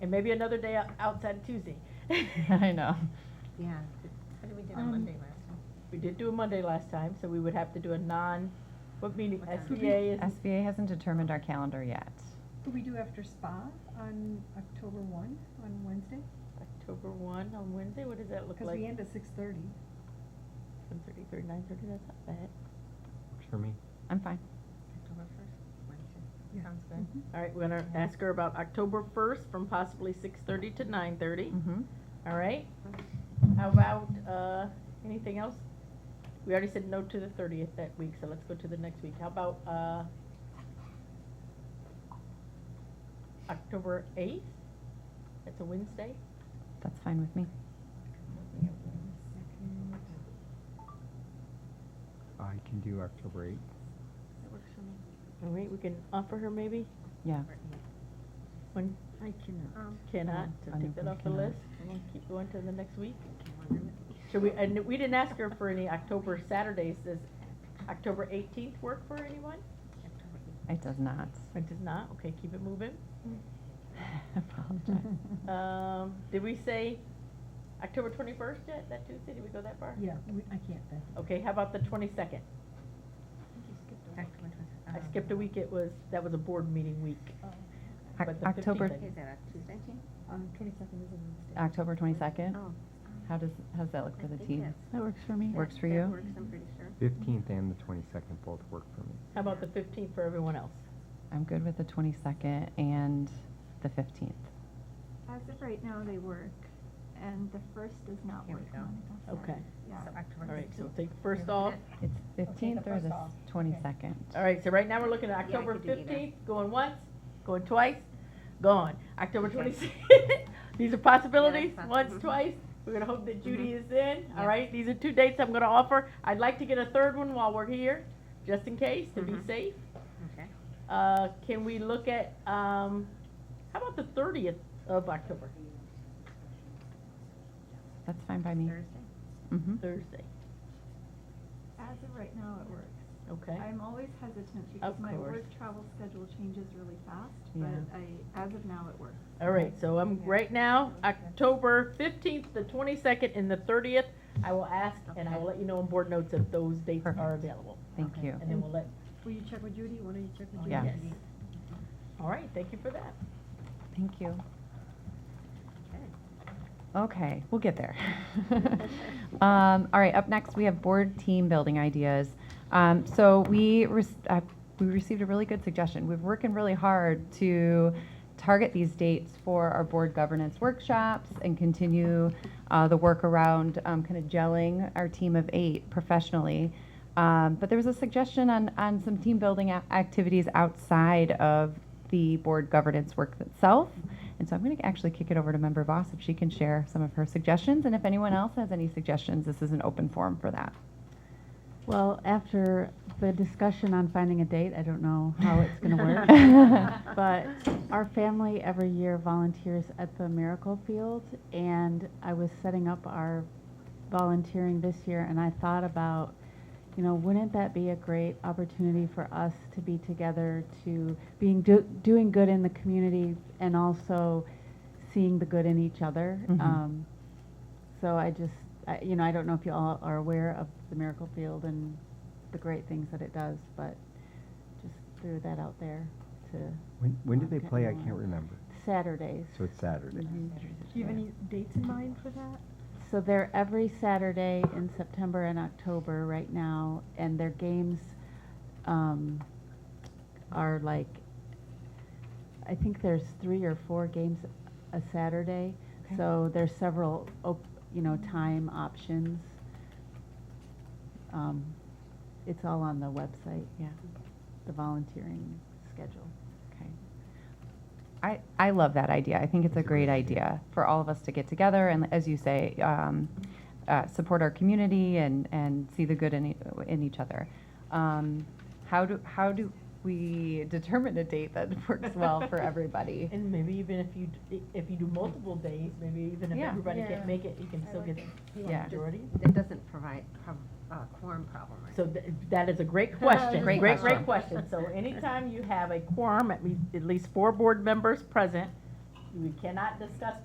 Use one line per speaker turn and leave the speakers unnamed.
And maybe another day o- outside of Tuesday.
I know.
Yeah, how did we do on
Um,
Monday last time?
We did do a Monday last time, so we would have to do a non, what meeting,
What time?
SBA is,
SBA hasn't determined our calendar yet.
Could we do after spa on October one, on Wednesday?
October one on Wednesday, what does that look
Because we
like?
end at six thirty.
Seven thirty, thirty, nine thirty, that's not bad.
Works for me.
I'm fine.
October first, Wednesday,
Yeah.
sounds good.
Mhm.
All right, we're gonna ask her about October first from possibly six thirty to nine thirty,
Mm-hmm.
all right?
Mm-hmm.
How about, uh, anything else? We already said no to the thirtieth that week, so let's go to the next week. How about, uh, October eighth? That's a Wednesday?
That's fine with me.
Mm-hmm.
I can do October 8th.
That works for me.
All right, we can offer her maybe?
Yeah.
One
I cannot. Um,
cannot, so
I know
take that
we
off the
cannot.
list. And we'll keep going to the next week.
can one minute.
Should we, and we didn't ask her for any October Saturdays. Does October eighteenth work for anyone?
October eighth.
It does not.
It does not. Okay, keep it moving.
Apologize.
Um, did we say October twenty-first yet? That Tuesday? Did we go that far?
Yeah, we, I can't, Beth.
Okay, how about the twenty-second?
October twenty-
I
Uh-huh.
um,
skipped a week. It was, that was a board meeting week.
Uh,
Oc-
But the
October,
fifteenth,
Is that a Tuesday?
On twenty-second is a Wednesday.
October twenty-second?
Oh.
How does, how does that look
I
for the
think
team?
that's-
That works for me. Works for
that
you?
works, I'm pretty sure.
15th and the 22nd both work for me.
How about the fifteenth for everyone else?
I'm good with the twenty-second and the fifteenth.
As of right now, they work, and the first does not
Here we
work.
go.
Monica.
Okay.
Yeah.
So October
All right, so
fifteenth.
take first off.
It's
the
fifteenth or
first
the
off. Okay.
twenty-second?
All right, so right now we're looking at
Yeah, I
October
could do either.
fifteenth, going once, going twice, gone. October
Okay.
twenty-sixth, these are possibilities,
possible.
once,
Mhm.
twice. We're gonna hope that Judy is in, all
Mm-hmm. Yeah.
right? These are two dates I'm gonna offer. I'd like to get a third one while we're here, just in case, to be
Mhm.
safe.
Okay.
Uh, can we look at, um, how about the thirtieth of October,
That's fine by me.
Thursday?
Mm-hmm.
Thursday?
As of right now, it works.
Okay,
I'm always hesitant because
Of
my work
course.
travel schedule changes really fast,
Yeah.
but I, as of now, it works.
all right, so I'm, right now, October fifteenth, the twenty-second, and the thirtieth, I will ask, and I will let you know on board notes if those dates are
Perfect.
available.
Thank
Okay.
you.
And then we'll let,
Will you check with Judy? Why don't you check with Judy?
Yeah.
yes. All right, thank you for that.
Thank you.
Okay.
Okay, we'll get there. um, all right, up next we have board team building ideas. Um, so we re- uh, we received a really good suggestion. We're working really hard to target these dates for our board governance workshops and continue uh, the work around um, kind of gelling our team of eight professionally. Um, but there was a suggestion on, on some team building a- activities outside of the board governance work itself. And so I'm going to actually kick it over to Member Voss if she can share some of her suggestions. And if anyone else has any suggestions, this is an open forum for that.
Well, after the discussion on finding a date, I don't know how it's going to work. but our family every year volunteers at the Miracle Field, and I was setting up our volunteering this year, and I thought about, you know, wouldn't that be a great opportunity for us to be together, to being do, doing good in the community, and also seeing the good in each other.
Mhm.
Um, so I just, I, you know, I don't know if you all are aware of the Miracle Field and the great things that it does, but just threw that out there to
When, when do they
Okay.
play? I can't remember.
Saturdays.
So it's Saturday.
Mhm.
Do you have any dates in mind for that?
So they're every Saturday in September and October right now, and their games um, are like, I think there's three or four games a Saturday.
Okay.
So there's several, op- you know, time options. Um, it's all on the website,
Yeah.
the volunteering schedule.
Okay. I, I love that idea. I think it's a great idea for all of us to get together and, as you say, um, uh, support our community and, and see the good in, e- in each other. Um, how do how do we determine a date that works well for everybody?
And maybe even if you, d- if you do multiple days, maybe even if
Yeah.
everybody can't
Yeah.
make it, you can
I
still
like
get the
Yeah.
majority.
That doesn't provide, prob, uh, quorum problem, right?
So th- that is a great question,
Great
great, great question. So anytime you have a quorum, at least, at least four board members present, we cannot discuss